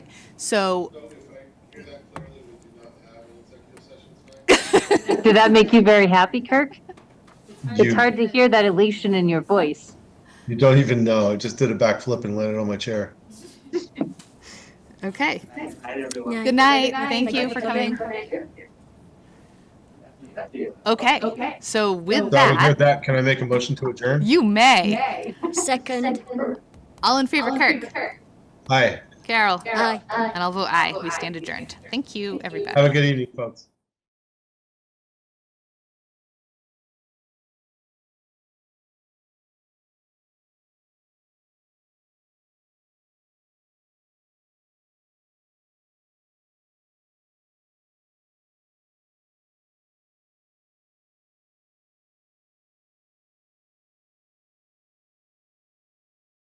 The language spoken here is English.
So, So if I hear that clearly, we do not have an executive session tonight. Did that make you very happy, Kirk? It's You- hard to hear that elation in your voice. You don't even know. I just did a backflip and landed on my chair. okay. Yeah. Good night. Thank you for coming. Okay. So So with with that, that, can I make a motion to adjourn? you may. Second. All in favor, Kirk, Hi. Carol, Aye. and I'll vote aye. We stand adjourned. Thank you, everybody. Have a good evening, folks.